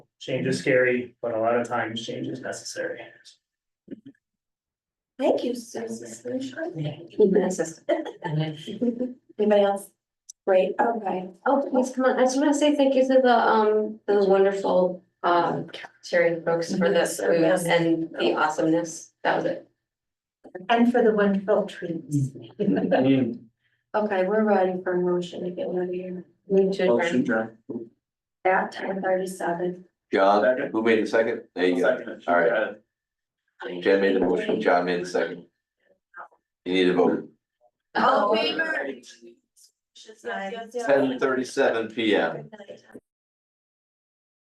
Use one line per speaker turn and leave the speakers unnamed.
Change is scary, but a lot of times change is necessary.
Thank you, Susan. Anybody else? Great, okay.
Oh, please come on. I just want to say thank you to the, um, those wonderful, um, cafeteria folks for the
Yes,
food
yes.
and the awesomeness. That was it.
And for the wonderful treats.
Mm-hmm.
Okay, we're ready for a motion to get out of here.
Move to
Motion,
adjourn.
John.
At ten thirty-seven.
Second.
John, who made the second? There you go.
Second.
All right. Jen made the motion, John made the second. You need a vote.
Oh,
wait.
Ten thirty-seven P M.